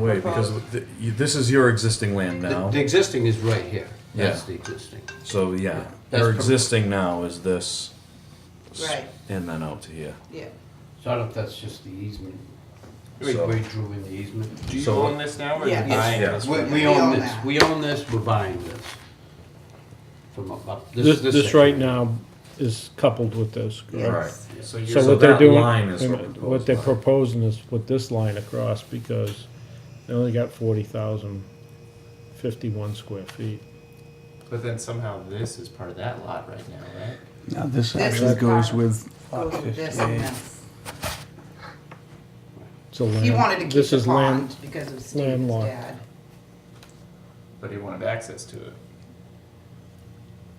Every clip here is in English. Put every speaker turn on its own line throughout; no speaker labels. Wait, because th- you- this is your existing land
The,
now,
the existing is right here. That's
Yeah.
the existing.
so yeah,
That's
your
pro-
existing now is this. s-
Right.
And then out to here.
Yeah,
So I don't know if that's just the easement. We,
So-
we drew in the easement.
Do you
So-
own this now or
Yeah.
you buying
Yeah.
this?
We,
one?
we own
own
this,
that.
we own this, we're buying this. From up, up.
This, this
section.
right now is coupled with this, correct?
Right.
yes.
So you're
So
So
what they're
that
doing,
line is what proposed
what they're
line.
proposing is put this line across because they only got forty thousand fifty-one square feet.
But then somehow this is part of that lot right now, right?
Now, this
This
actually
is
goes
part-
with lot
Goes with this and
58.
this.
It's a
He
land-
wanted to keep
this
the
is land-
pond because of Steve's
landlocked.
dad.
But he wanted access to it.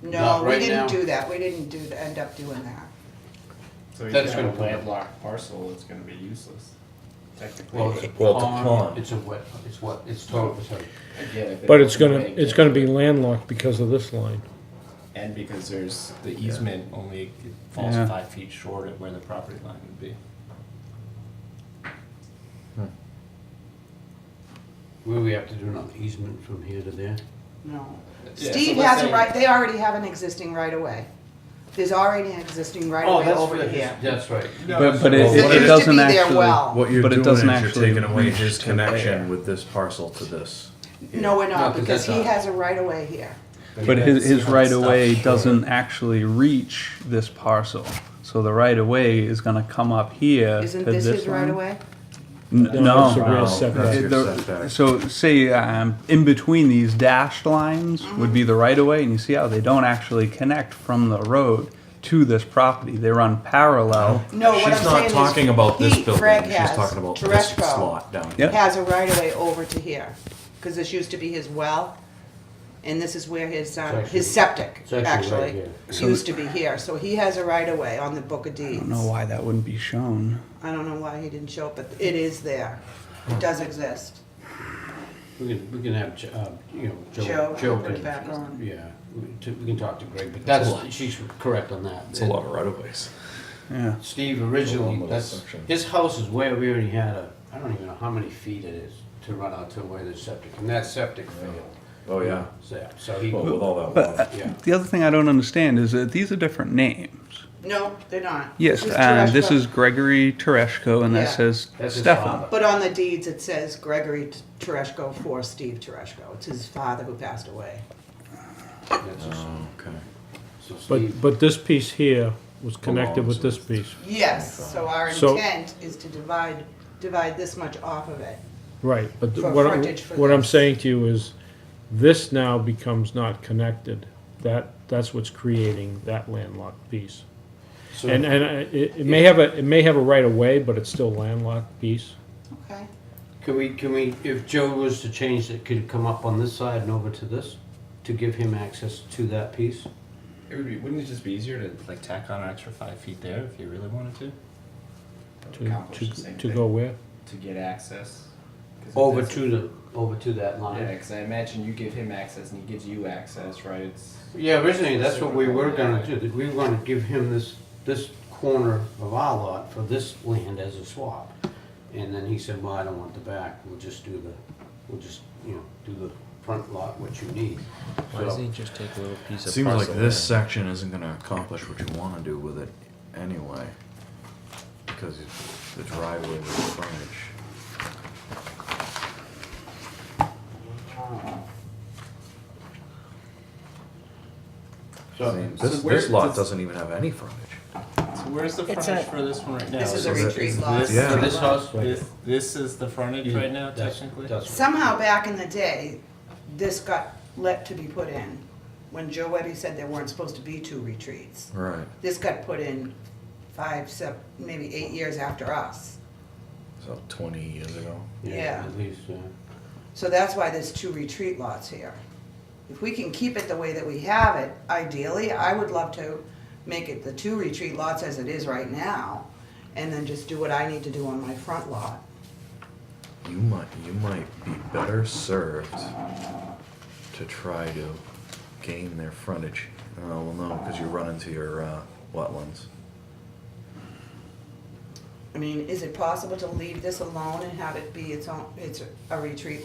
No,
Not
we
right
didn't
now.
do that, we didn't do, th- end up doing that.
So he's
That's
got a
gonna put-
landlocked parcel, it's gonna be useless, technically.
Well, it's a
Well, it's a
pond,
pond.
it's a wet, it's what, it's total, sorry.
I get it,
But it's gonna,
make
it's
it.
gonna be landlocked because of this line.
And because there's, the easement only falls
Yeah.
five feet short of where the property line would be.
Will we have to do another easement from here to there?
No.
Yeah, so
Steve
let's
has a
say-
right, they already have an existing right of way. There's already an existing right of
Oh,
way
that's
over
right.
here.
That's right.
But, but it,
Well,
it,
what
it
it-
It
doesn't
used to be their
actually.
well.
What you're
But it
doing is
doesn't
you're
actually
taking away
reach
his
to
connection
there.
with this parcel to this.
No, we're
No,
not,
'cause
because
that's
he
not-
has a right of way here.
But
he
his,
does
his
have
right
stuff
of way
short.
doesn't actually reach this parcel. So the right of way is going to come up here.
Isn't
to
this his right
line.
of way?
N-
No,
No.
it's a real
Wow,
setback.
That's your
The-
setback.
So say um, in between these dashed lines
Mm-hmm.
would be the right of way, and you see how they don't actually connect from the road to this property. They run parallel.
No, what I'm saying is.
She's not talking about this
he-
building,
Fred
she's
has,
talking about this
Tereshko
slot down here.
Yep.
Has a right of way over to here, because this used to be his well, and this is where his,
It's
um,
actually-
his septic,
it's actually right
actually,
here.
used to be here. So he has a right of way on the book of deeds.
I don't know why that wouldn't be shown.
I don't know why he didn't show up, but it is there. It does exist.
We can, we can have, Jo- uh, you know,
Joe,
Joe. Joe
put it
can-
back on.
Yeah, we to- we can talk to Greg, but that's, she's correct on that.
It's a lot of right of ways.
Yeah.
Oh,
Steve
One
originally,
little
that's,
section.
his house is where we already had a, I don't even know how many feet it is to run out to where the septic, and that septic failed.
Oh, yeah.
So, so he,
Well, with all that.
But
water.
uh,
Yeah.
the other thing I don't understand is that these are different names.
No, they're not.
Yes,
This is
um, this
Tereshko.
is Gregory Tereshko, and that
Yeah.
says
that's his
Stefan.
father.
But on the deeds, it says Gregory T- Tereshko for Steve Tereshko. It's his father who passed away.
That's his-
Oh, Okay.
So Steve,
But, but this piece here was connected with this piece.
Yes, so our
So-
intent is to divide, divide this much off of it.
Right, but th-
For
what I'm,
frontage for
what I'm
this.
saying to you is, this now becomes not connected. That, that's what's creating that landlocked piece.
so-
And, and uh, it, it may have a, it may have a right of way, but it's still landlocked piece.
Okay.
Can we, can we, if Joe was to change it, could it come up on this side and over to this? To give him access to that piece?
It would be, wouldn't it just be easier to like tack on an extra five feet there if you really wanted to?
To,
Accomplish
to,
the same
to
thing.
go where?
To get access? 'Cause if
Over
that's-
to the, over to that
Yeah,
line?
because I imagine you give him access and he gives you access, right? It's
Yeah, originally, that's what we were gonna do, that we were gonna give him this, this corner of our lot for this land as a swap. And then he said, well, I don't want the back, we'll just do the, we'll just, you know, do the front lot, what you need.
Why doesn't
So,
he just take a little piece of
Seems like
parcel
this
land?
section isn't gonna accomplish what you wanna do with it anyway. Because it's the driveway with the frontage. I mean,
so,
this,
where
this lot
does-
doesn't even have any frontage.
so where's the
It's
frontage
a-
for this one right now?
This is
so
a
that-
retreat
is
lot.
this- Yeah.
So this house,
Right.
this, this is the frontage right now
That's-
technically?
that's-
Somehow back in the day, this got let to be put in, when Joe Webby said there weren't supposed to be two retreats.
Right,
This got put in five, seven, maybe eight years after us.
so twenty years ago.
Yeah.
At least, yeah.
So that's why there's two retreat lots here. If we can keep it the way that we have it, ideally, I would love to make it the two retreat lots as it is right now, and then just do what I need to do on my front lot.
You might, you might be better served to try to gain their frontage. Oh, well, no, because you run into your, uh, wetlands.
I mean, is it possible to leave this alone and have it be its own, it's a retreat